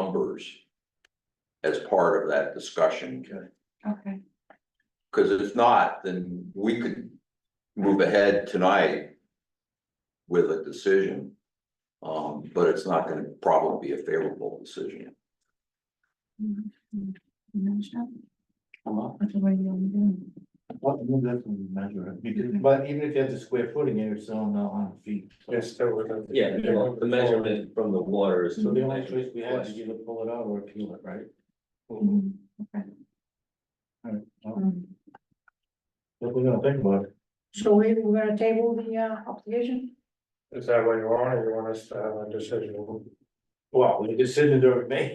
numbers as part of that discussion. Okay, Cause if not, then we could move ahead tonight with a decision. Um, but it's not gonna probably be a favorable decision. that's the way you only do it. What, no, that's when you measure it, because, but even if you have the square footing, you're still not on feet. Yeah, well, the measurement from the water is. So the only choice we have is either pull it out or appeal it, right? Mm-hmm. Mhm, okay. Alright, well. Um, What we're gonna think about. So we, we're gonna table the, uh, application? Is that what you want, or you want us to have a decision? Well, we decided to remain.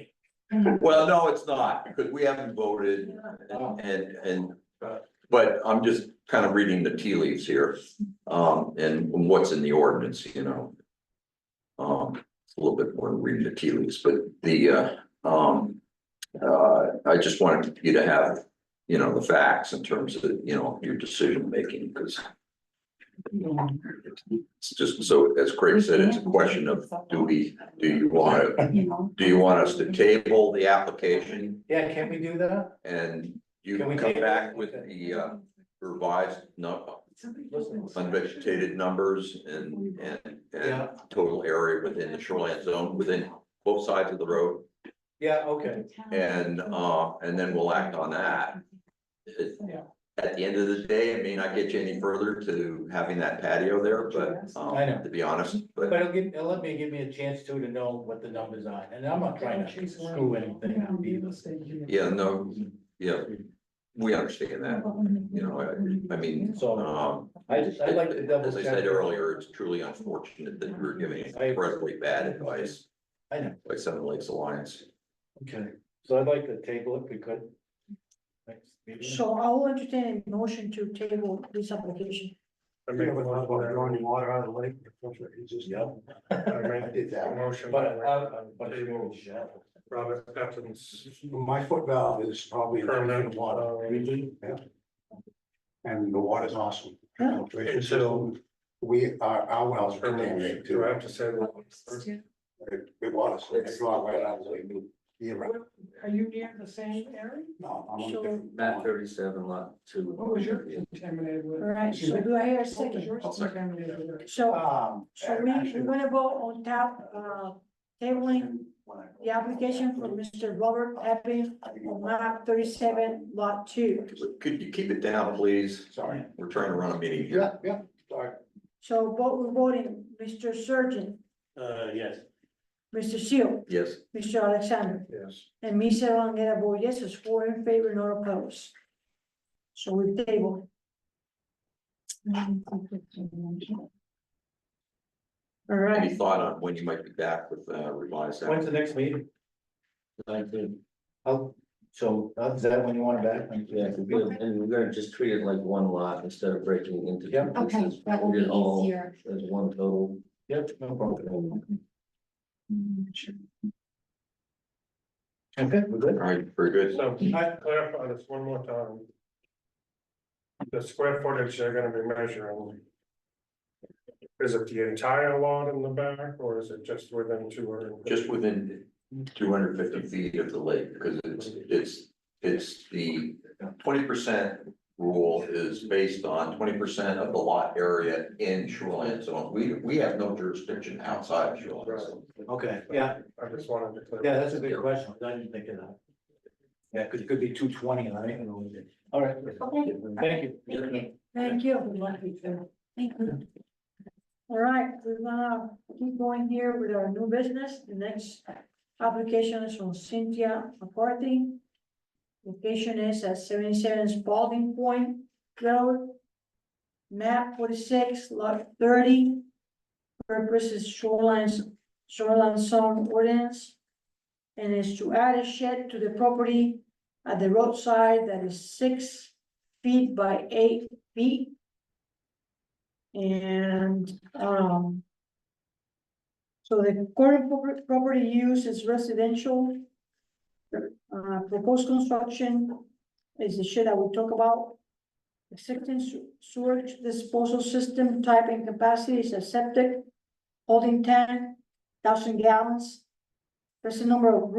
Well, no, it's not, because we haven't voted Um, and, and, and, but I'm just kind of reading the tea leaves here. Um, and what's in the ordinance, you know. Um, it's a little bit more than reading the tea leaves, but the, uh, um. Uh, I just wanted you to have, you know, the facts in terms of, you know, your decision making, because it's just so, as Craig said, it's a question of, do we, do you want to, You know. do you want us to table the application? Yeah, can we do that? And you Can we can come take- back with the uh, revised, no, unvegetated numbers and, and, and Yeah. total area within the shoreline zone, within both sides of the road. Yeah, okay. And, uh, and then we'll act on that. It- Yeah. At the end of the day, it may not get you any further to having that patio there, but, um, I know. to be honest, But but it'll give, it'll let me, give me a chance too to know what the numbers are, and I'm not trying to screw anything up either. yeah, no, yeah, we understand that. You know, I- I mean, So Um, I just, I'd like to double As I check. said earlier, it's truly unfortunate that we're giving incredibly bad advice I know, by Seven Lakes Alliance. okay, so I'd like to table it, if we could. Next meeting. So I'll entertain a motion to table this application. I make a motion, water out of the lake. Yep. I did that. Motion. But, uh, but it will Robert Pattinson's My foot valve is probably permanent permanent water uh, and the water's awesome. Filtration so- system, We, our, our wells are permanent, contaminated do too. I have to say that? It it was, it's not right out of the way. You're right. Are you near the same area? No, I'm on a So- different Map one. thirty-seven lot two. What was your contaminated All with? right, so do I hear a second? I'll second. So, Um. so we, actually, we're gonna go on top, uh, tabling when I- the application for Mr. Robert Epping on map thirty-seven lot two. Could you keep it down, please? Sorry. We're trying to run a meeting here. Yeah, yeah, sorry. So vote, we're voting, Mr. Surgeon, Uh, yes. Mr. Seal, Yes, Mr. Alexander. Yes. And me, Sarah Longa, vote yes, is four in favor, no opposed. So we table. All any right, thought on when you might be back with uh, revised? When's the next meeting? Oh, so, uh, is that when you want it back? Yeah, and we're gonna just treat it like one lot instead of breaking into. two Yeah. Okay, pieces. that will be Treat it all easier. As one total. Yep, no problem. Mm, sure. Okay, we're All good. right, very good. So can I clarify this one more time? The square footage they're gonna be measuring. Is it the entire lot in the back, or is it just within two hundred? Just within two hundred fifty feet of the lake, because it's, it's, it's the twenty percent rule is based on twenty percent of the lot area in shoreline zone. We, we have no jurisdiction outside of shoreline zone. Okay, yeah, I just wanted to. clarify. yeah, that's a good question. I didn't think of that. Yeah, because it could be two twenty and I didn't know. it. All right. Okay. Thank Thank you. you. thank you. Thank you. All right, we're gonna keep going here with our new business. The next application is from Cynthia McCarthy. Location is at seventy-seven Spalding Point Road. Map forty-six, lot thirty. Purpose is shoreline, shoreline zone ordinance. And is to add a shed to the property at the roadside that is six feet by eight feet. And, um. So the current proper- property use is residential. Uh, proposed construction is the shit that we talk about. Existing se- sewer disposal system type and capacity is a septic, holding tank, thousand gallons. There's a number of rooms